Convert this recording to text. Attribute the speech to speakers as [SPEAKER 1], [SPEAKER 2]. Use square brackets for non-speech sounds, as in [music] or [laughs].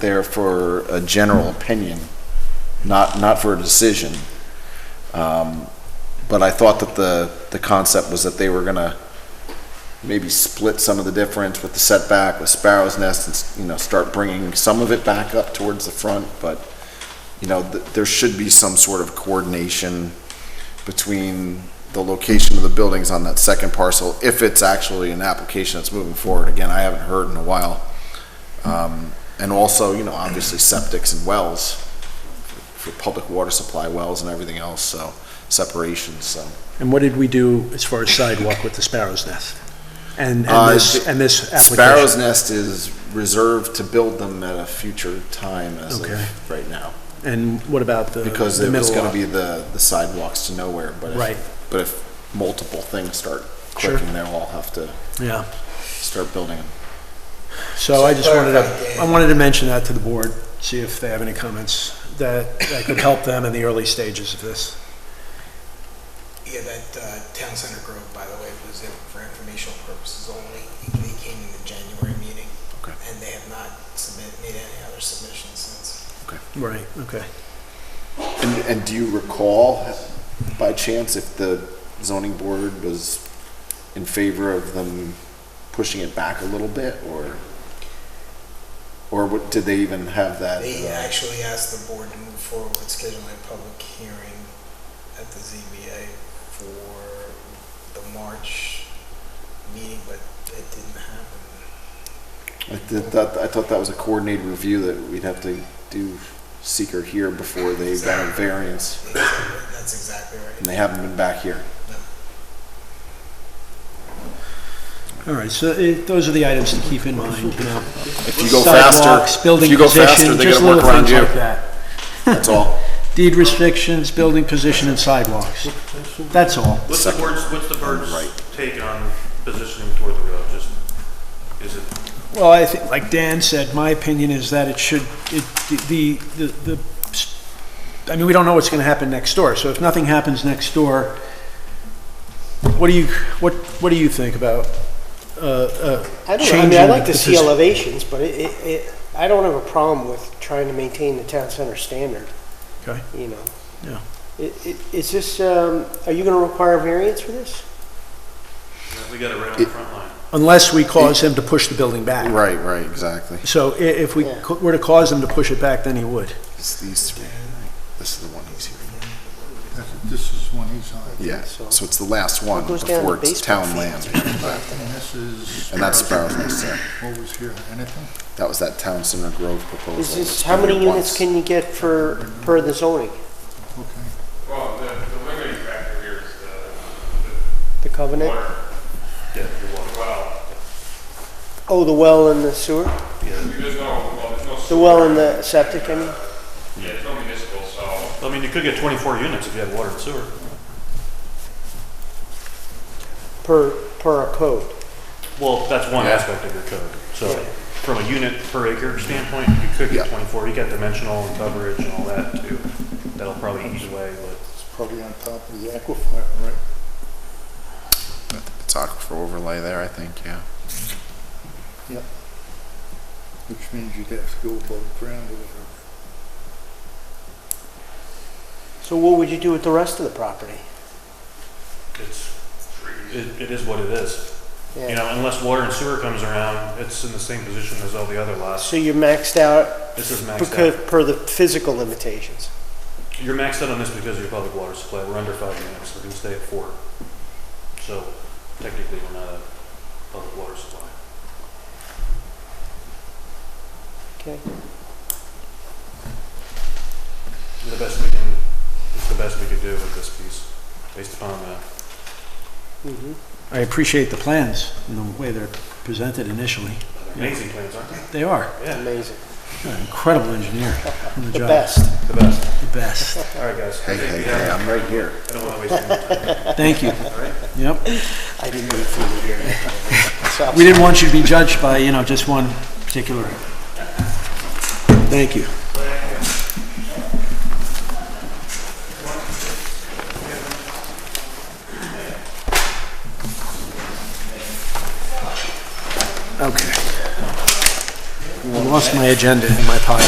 [SPEAKER 1] there for a general opinion, not, not for a decision. Um, But I thought that the, the concept was that they were gonna maybe split some of the difference with the setback with Sparrow's Nest and, s- you know, start bringing some of it back up towards the front, but, you know, th- there should be some sort of coordination between the location of the buildings on that second parcel, if it's actually an application that's moving forward. Again, I haven't heard in a while. Um, And also, you know, obviously septics and wells, for public water supply wells and everything else, so separations, so.
[SPEAKER 2] And what did we do as far as sidewalk with the Sparrow's Nest? And,
[SPEAKER 1] Uh,
[SPEAKER 2] and this, and this
[SPEAKER 1] Sparrow's
[SPEAKER 2] application?
[SPEAKER 1] Nest is reserved to build them at a future time as
[SPEAKER 2] Okay.
[SPEAKER 1] of right now.
[SPEAKER 2] And what about the,
[SPEAKER 1] Because
[SPEAKER 2] the
[SPEAKER 1] it was
[SPEAKER 2] middle
[SPEAKER 1] gonna
[SPEAKER 2] lot?
[SPEAKER 1] be the, the sidewalks to nowhere, but
[SPEAKER 2] Right.
[SPEAKER 1] if, but if multiple things start
[SPEAKER 2] Sure.
[SPEAKER 1] clicking, they'll all have to
[SPEAKER 2] Yeah,
[SPEAKER 1] start building them.
[SPEAKER 2] so I just wanted
[SPEAKER 3] Clarify,
[SPEAKER 2] to,
[SPEAKER 3] Dan.
[SPEAKER 2] I wanted to mention that to the board, see if they have any comments that, that could help them in the early stages of this.
[SPEAKER 3] Yeah, that uh, Town Center Grove, by the way, was in for informational purposes only. They came in the January meeting.
[SPEAKER 1] Okay.
[SPEAKER 3] And they have not submitted, made any other submissions since.
[SPEAKER 2] Right, okay.
[SPEAKER 1] And, and do you recall, by chance, if the zoning board was in favor of them pushing it back a little bit, or? Or what, did they even have that?
[SPEAKER 3] They
[SPEAKER 1] uh,
[SPEAKER 3] actually asked the board to move forward with scheduling a public hearing at the ZBA for the March meeting, but it didn't happen.
[SPEAKER 1] I did that, I thought that was a coordinated review that we'd have to do seeker here before they got a variance,
[SPEAKER 3] Exactly, That's exactly right.
[SPEAKER 1] and they haven't been back here.
[SPEAKER 2] All right, so it, those are the items to keep in mind, you know?
[SPEAKER 1] If you go faster,
[SPEAKER 2] Sidewalks,
[SPEAKER 1] if
[SPEAKER 2] building
[SPEAKER 1] you go faster,
[SPEAKER 2] position,
[SPEAKER 1] they're
[SPEAKER 2] just
[SPEAKER 1] gonna work
[SPEAKER 2] little
[SPEAKER 1] around
[SPEAKER 2] things
[SPEAKER 1] you,
[SPEAKER 2] like that.
[SPEAKER 1] that's all.
[SPEAKER 2] Deed restrictions, building position and sidewalks. That's all.
[SPEAKER 4] What's the
[SPEAKER 1] Second.
[SPEAKER 4] bird's, what's the bird's
[SPEAKER 1] Right.
[SPEAKER 4] take on positioning toward the road? Just, is it,
[SPEAKER 2] Well, I think, like Dan said, my opinion is that it should, it, the, the, the, I mean, we don't know what's gonna happen next door, so if nothing happens next door, what do you, what, what do you think about, uh,
[SPEAKER 5] I
[SPEAKER 2] uh,
[SPEAKER 5] don't know, I mean, I
[SPEAKER 2] changing
[SPEAKER 5] like to
[SPEAKER 2] the
[SPEAKER 5] see
[SPEAKER 2] system?
[SPEAKER 5] elevations, but it, it- it, I don't have a problem with trying to maintain the town center standard,
[SPEAKER 2] Okay,
[SPEAKER 5] you know?
[SPEAKER 2] Yeah.
[SPEAKER 5] It- it- Is this, um, are you gonna require variance for this?
[SPEAKER 4] we got around the front line?
[SPEAKER 2] unless we cause him to push the building back.
[SPEAKER 1] Right, right, exactly.
[SPEAKER 2] So i- if we
[SPEAKER 5] Yeah.
[SPEAKER 2] co- were to cause him to push it back, then he would.
[SPEAKER 1] It's these three, this is the one he's here.
[SPEAKER 6] This is one he's on,
[SPEAKER 1] Yeah,
[SPEAKER 5] So-
[SPEAKER 1] so it's the last one
[SPEAKER 5] It goes down
[SPEAKER 1] before
[SPEAKER 5] to
[SPEAKER 1] it's
[SPEAKER 5] baseball
[SPEAKER 1] town land.
[SPEAKER 6] and this is.
[SPEAKER 1] And that's Sparrow's Nest, yeah.
[SPEAKER 6] What was here, anything?
[SPEAKER 1] That was that Town Center Grove proposal.
[SPEAKER 5] Is
[SPEAKER 1] It's
[SPEAKER 5] this, how
[SPEAKER 1] been
[SPEAKER 5] many
[SPEAKER 1] here
[SPEAKER 5] units
[SPEAKER 1] once.
[SPEAKER 5] can you get for, per the zoning,
[SPEAKER 6] Okay.
[SPEAKER 7] Well, the, the limiting factor here is the
[SPEAKER 5] the covenant?
[SPEAKER 7] water. Well,
[SPEAKER 5] Oh, the well and the sewer,
[SPEAKER 7] there's no, well, there's no.
[SPEAKER 5] the well and the septic, I mean?
[SPEAKER 7] Yeah, it's no municipal, so
[SPEAKER 4] I mean, you could get twenty-four units if you had water and sewer.
[SPEAKER 5] per, per a code.
[SPEAKER 4] Well, that's one aspect of your code. So from a unit per acre standpoint, you could get
[SPEAKER 1] Yeah.
[SPEAKER 4] twenty-four. You got dimensional and coverage and all that too. That'll probably ease away,
[SPEAKER 6] It's probably on top of the aquifer, right?
[SPEAKER 1] It's aquifer overlay there, I think, yeah.
[SPEAKER 6] Which means you'd have to go above ground or whatever.
[SPEAKER 5] So what would you do with the rest of the property?
[SPEAKER 4] but it's, it, it is what it is. You
[SPEAKER 5] Yeah.
[SPEAKER 4] know, unless water and sewer comes around, it's in the same position as all the other lots.
[SPEAKER 5] So you're maxed out
[SPEAKER 4] This is maxed
[SPEAKER 5] because,
[SPEAKER 4] out.
[SPEAKER 5] per the physical limitations?
[SPEAKER 4] You're maxed out on this because of your public water supply. We're under five units. We're gonna stay at four. So technically, we're not a public water supply.
[SPEAKER 5] Okay.
[SPEAKER 4] The best we can, it's the best we could do with this piece, based upon the
[SPEAKER 5] Mhm.
[SPEAKER 2] I appreciate the plans and the way they're presented initially.
[SPEAKER 4] they're amazing plans, aren't they?
[SPEAKER 2] They are.
[SPEAKER 4] Yeah,
[SPEAKER 5] Amazing.
[SPEAKER 2] You're an incredible
[SPEAKER 5] [laughs]
[SPEAKER 2] engineer. on
[SPEAKER 5] The
[SPEAKER 2] job.
[SPEAKER 5] best.
[SPEAKER 4] the best.
[SPEAKER 2] The best.
[SPEAKER 4] All right, guys.
[SPEAKER 1] Hey, hey, hey,
[SPEAKER 4] Yeah,
[SPEAKER 1] I'm right here.
[SPEAKER 4] I don't wanna waste any more time.
[SPEAKER 2] Thank you. Yep.
[SPEAKER 5] I didn't mean for you to hear that.
[SPEAKER 2] We didn't want you to be judged by, you know, just one particular. Thank you. Okay. We lost my agenda in my pocket.